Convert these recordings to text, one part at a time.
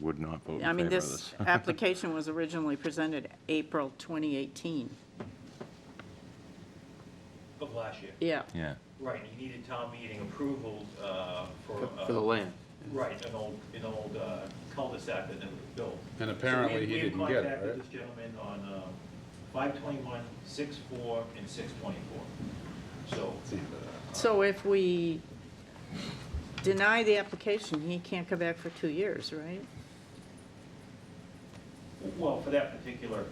would not vote I in mean, favor of this this. application was originally presented April 2018. Of last year. Yeah. Yeah, Right, and you needed town meeting approval uh, for. for- for the uh, land. Right, an old, an old uh, cul-de-sac that never was built. And apparently So we- he didn't We had get it, right? contacted this gentleman on uh, five twenty-one, six four, and six twenty-four. So, So if we deny the application, he can't come back for two years, right? well, for that particular,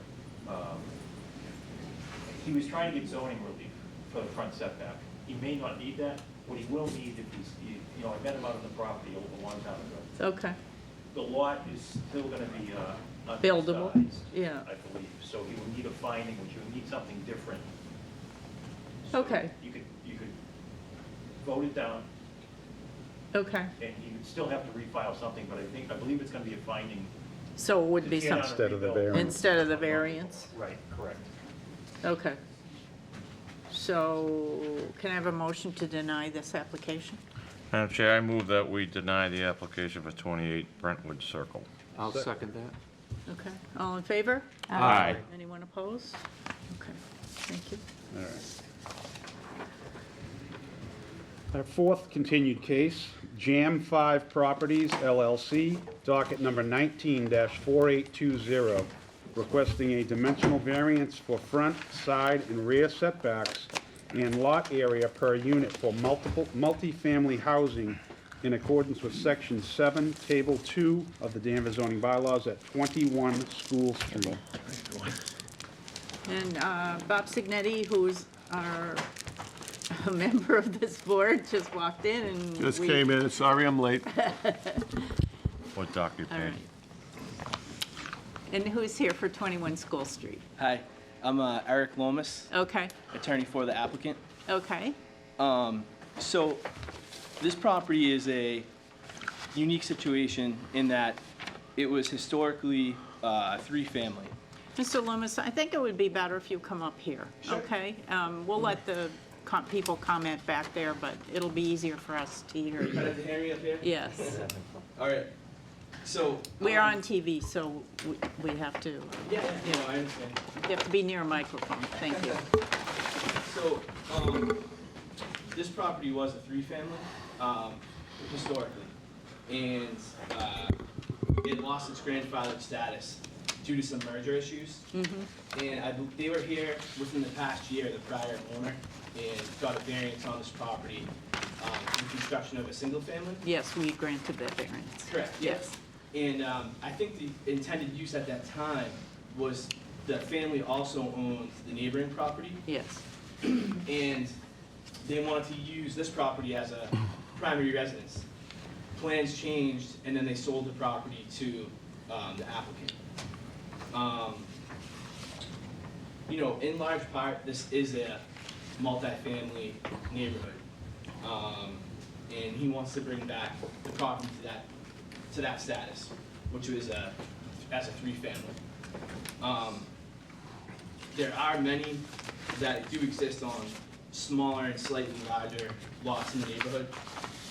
um, he was trying to get zoning relief for the front setback. He may not need that, what he will need if he's, you know, I met him out on the property a long time ago. Okay, The lot is still gonna be, uh, Buildable, undersized, yeah. I believe, so he would need a finding, which you would need something different. So Okay. You could, you could vote it down, okay. and you would still have to refile something, but I think, I believe it's gonna be a finding. So it would be You cannot something, Instead of the rebuild. variance. instead of the variance? Right, correct. Okay. So can I have a motion to deny this application? Madam Chair, I move that we deny the application for 28 Brentwood Circle. I'll second that. Okay, all in favor? Aye. Anyone opposed? Okay, thank you. All right. Our fourth continued case, Jam 5 Properties LLC, docket number 19-4820, requesting a dimensional variance for front, side, and rear setbacks and lot area per unit for multiple, multifamily housing in accordance with Section 7, Table 2 of the Danvers zoning bylaws at 21 School Street. And uh, Bob Signetti, who is our, a member of this board, just walked in and we... Just came in, sorry I'm late. What doc you All right. paying? And who's here for 21 School Street? Hi, I'm uh, Eric Lomas, Okay, attorney for the applicant. okay, So, this property is a unique situation in that it was historically uh, three-family. Mr. Loomis, I think it would be better if you come up here, okay? Um, We'll let the co- people comment back there, but it'll be easier for us to hear you. have to hear me up here? Yes, All right. So. we're um, on TV, so we- we have to, Yeah, yeah, no, I understand. you have to be near a microphone, thank you. So, um, this property was a three-family, um, historically. And, uh, it lost its grandfathered status due to some merger issues. And I, bel- they were here within the past year, the prior owner, and got a variance on this property, um, for construction of a single-family. Yes, we granted that variance. Correct, yes. And um, I think the intended use at that time was the family also owned the neighboring property Yes, and they wanted to use this property as a primary residence. Plans changed, and then they sold the property to um, the applicant. Um, You know, in large part, this is a multifamily neighborhood. Um, And he wants to bring back the property to that, to that status, which was a, as a three-family. Um, there are many that do exist on smaller and slightly larger lots in the neighborhood.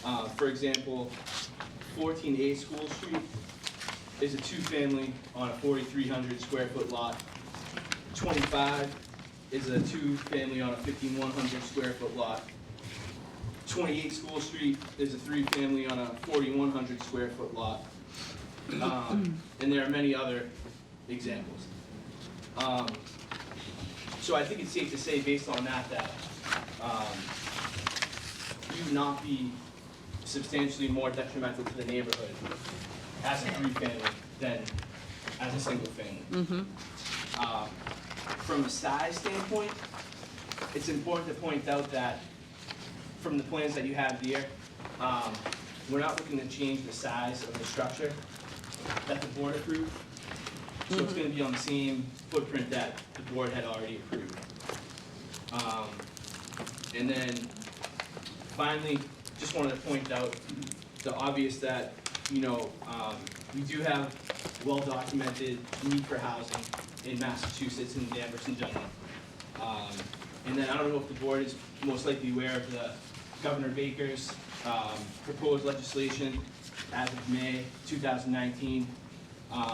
Uh, for example, fourteen A School Street is a two-family on a forty-three hundred square foot lot. Twenty-five is a two-family on a fifty-one hundred square foot lot. Twenty-eight School Street is a three-family on a forty-one hundred square foot lot. Um, and there are many other examples. Um, so I think it's safe to say, based on that, that um, you would not be substantially more detrimental to the neighborhood as a three-family than as a single-family. Um, From a size standpoint, it's important to point out that from the plans that you have here, um, we're not looking to change the size of the structure that the board approved. So it's gonna be on the same footprint that the board had already approved. Um, and then finally, just wanted to point out the obvious that, you know, um, we do have well-documented need for housing in Massachusetts and Danvers in general. Um, and then I don't know if the board is most likely aware of the Governor Baker's, um, proposed legislation as of May two thousand nineteen Um,